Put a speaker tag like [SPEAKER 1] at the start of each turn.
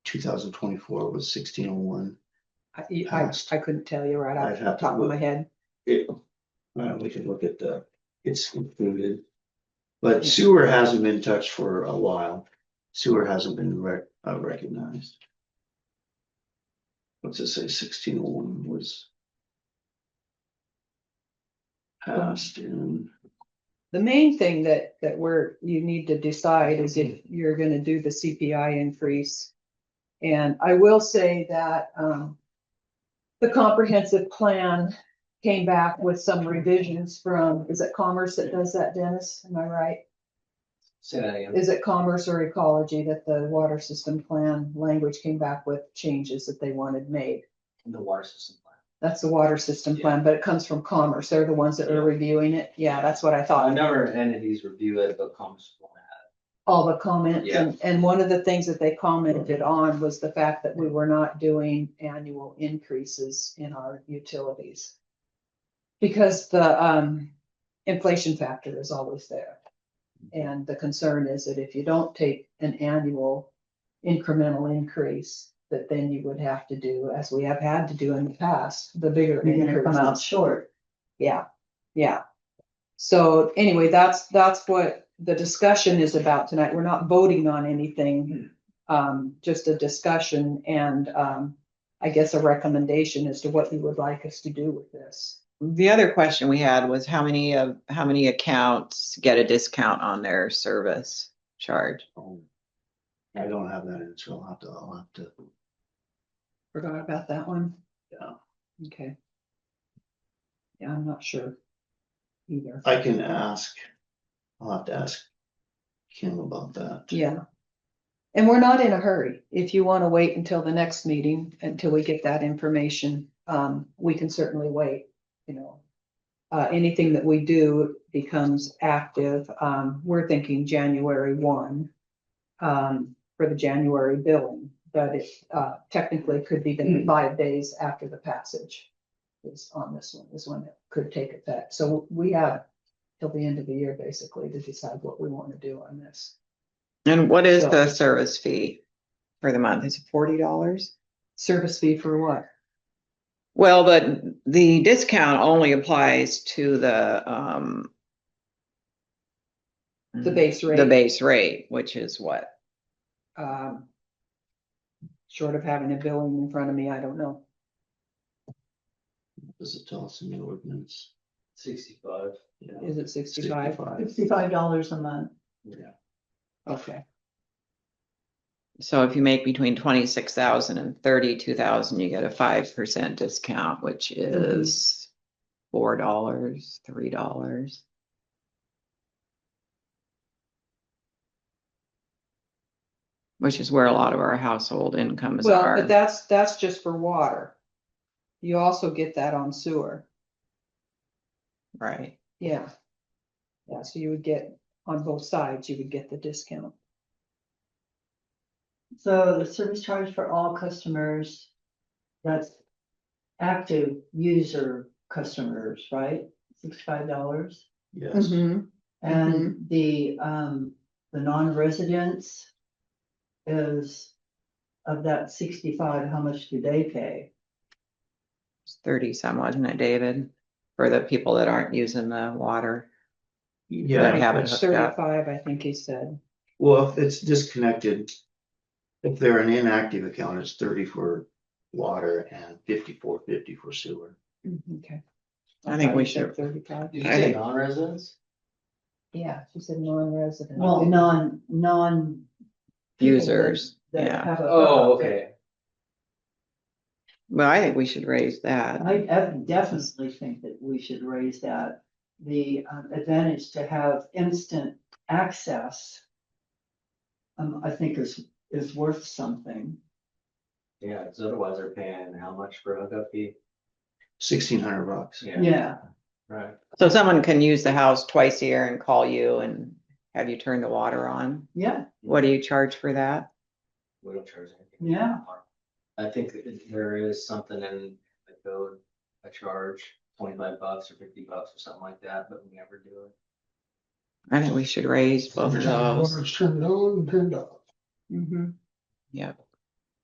[SPEAKER 1] two thousand twenty-four was sixteen oh one.
[SPEAKER 2] I, I, I couldn't tell you right
[SPEAKER 1] I'd
[SPEAKER 2] off
[SPEAKER 1] have
[SPEAKER 2] the
[SPEAKER 1] to
[SPEAKER 2] top of my
[SPEAKER 1] look.
[SPEAKER 2] head.
[SPEAKER 1] Uh, we can look at the, it's included. But sewer hasn't been touched for a while. Sewer hasn't been rec- uh, recognized. What's it say? Sixteen oh one was. Passed in,
[SPEAKER 2] The main thing that, that we're, you need to decide is if you're gonna do the CPI increase. And I will say that, um, the comprehensive plan came back with some revisions from, is it Commerce that does that, Dennis? Am I right?
[SPEAKER 3] Say that again.
[SPEAKER 2] Is it Commerce or Ecology that the water system plan language came back with changes that they wanted made?
[SPEAKER 3] In the water system plan.
[SPEAKER 2] That's the water system plan, but it comes from Commerce. They're the ones that
[SPEAKER 3] Yeah.
[SPEAKER 2] are reviewing it. Yeah, that's what I thought.
[SPEAKER 3] A number of entities review it, but Commerce won't have.
[SPEAKER 2] all the comments.
[SPEAKER 3] Yeah.
[SPEAKER 2] And, and one of the things that they commented on was the fact that we were not doing annual increases in our utilities. Because the, um, inflation factor is always there. And the concern is that if you don't take an annual incremental increase, that then you would have to do, as we have had to do in the past, the bigger
[SPEAKER 4] You're gonna come out
[SPEAKER 2] increases.
[SPEAKER 4] short.
[SPEAKER 2] Yeah, yeah. So anyway, that's, that's what the discussion is about tonight. We're not voting on anything. Um, just a discussion and, um, I guess a recommendation as to what you would like us to do with this.
[SPEAKER 5] The other question we had was how many of, how many accounts get a discount on their service charge?
[SPEAKER 1] um, I don't have that answer. I'll have to, I'll have to.
[SPEAKER 2] Forgot about that one?
[SPEAKER 1] Yeah.
[SPEAKER 2] Okay. Yeah, I'm not sure either.
[SPEAKER 1] I can ask, I'll have to ask Kim about that.
[SPEAKER 2] Yeah. And we're not in a hurry. If you want to wait until the next meeting, until we get that information, um, we can certainly wait, you know. Uh, anything that we do becomes active. Um, we're thinking January one. Um, for the January billing, but it, uh, technically could be the five days after the passage. Is on this one, is when it could take effect. So we have till the end of the year basically to decide what we want to do on this.
[SPEAKER 5] And what is
[SPEAKER 2] So-
[SPEAKER 5] the service fee for the month? Is it forty dollars?
[SPEAKER 2] Service fee for what?
[SPEAKER 5] Well, but the discount only applies to the, um,
[SPEAKER 2] The base rate.
[SPEAKER 5] Mm-hmm. The base rate, which is what?
[SPEAKER 2] Um. Short of having a billing in front of me, I don't know.
[SPEAKER 1] Does it tell us in the ordinance?
[SPEAKER 3] Sixty-five.
[SPEAKER 1] Yeah.
[SPEAKER 2] Is it sixty-five?
[SPEAKER 4] Sixty-five dollars a month.
[SPEAKER 3] Yeah.
[SPEAKER 2] Okay,
[SPEAKER 5] So if you make between twenty-six thousand and thirty-two thousand, you get a five percent discount, which
[SPEAKER 2] Mm-hmm.
[SPEAKER 5] is four dollars, three dollars. Which is where a lot of our household incomes
[SPEAKER 2] well, but
[SPEAKER 5] are.
[SPEAKER 2] that's, that's just for water. You also get that on sewer,
[SPEAKER 5] Right.
[SPEAKER 2] yeah. Yeah, so you would get, on both sides, you would get the discount.
[SPEAKER 4] So the service charge for all customers, that's active user customers, right? Sixty-five dollars.
[SPEAKER 2] Mm-hmm.
[SPEAKER 1] Yes.
[SPEAKER 5] Mm-hmm.
[SPEAKER 4] And the, um, the non-residents is of that sixty-five, how much do they pay?
[SPEAKER 5] It's Thirty some, wasn't it, David? For the people that aren't using the water.
[SPEAKER 1] Yeah.
[SPEAKER 5] That haven't hooked up.
[SPEAKER 2] Thirty-five, I think he said.
[SPEAKER 1] Well, if it's disconnected, if they're an inactive account, it's thirty for water and fifty-four fifty for sewer.
[SPEAKER 2] Okay.
[SPEAKER 5] I think
[SPEAKER 2] thought
[SPEAKER 5] we
[SPEAKER 2] he said
[SPEAKER 5] should-
[SPEAKER 2] Thirty-five,
[SPEAKER 3] Did you
[SPEAKER 5] I
[SPEAKER 3] say
[SPEAKER 5] think-
[SPEAKER 3] non-residents?
[SPEAKER 2] yeah, she said non-resident.
[SPEAKER 4] Well, non, non. people that-
[SPEAKER 5] Users,
[SPEAKER 4] that
[SPEAKER 5] yeah.
[SPEAKER 4] have a-
[SPEAKER 3] Oh, okay.
[SPEAKER 5] Well, I think we should raise that.
[SPEAKER 4] I def- definitely think that we should raise that, the um, advantage to have instant access. Um, I think is, is worth something.
[SPEAKER 3] Yeah, because otherwise they're paying how much for a hookup fee?
[SPEAKER 1] Sixteen hundred bucks.
[SPEAKER 4] Yeah,
[SPEAKER 3] Right.
[SPEAKER 5] So someone can use the house twice a year and call you and have you turn the water on?
[SPEAKER 4] yeah,
[SPEAKER 5] What do you charge for that?
[SPEAKER 3] We don't charge anything.
[SPEAKER 4] Yeah.
[SPEAKER 3] I think that there is something in the code, a charge, twenty-five bucks or fifty bucks or something like that, but we never do it.
[SPEAKER 5] I think we should raise both of those.
[SPEAKER 2] Mhm.
[SPEAKER 5] Yep.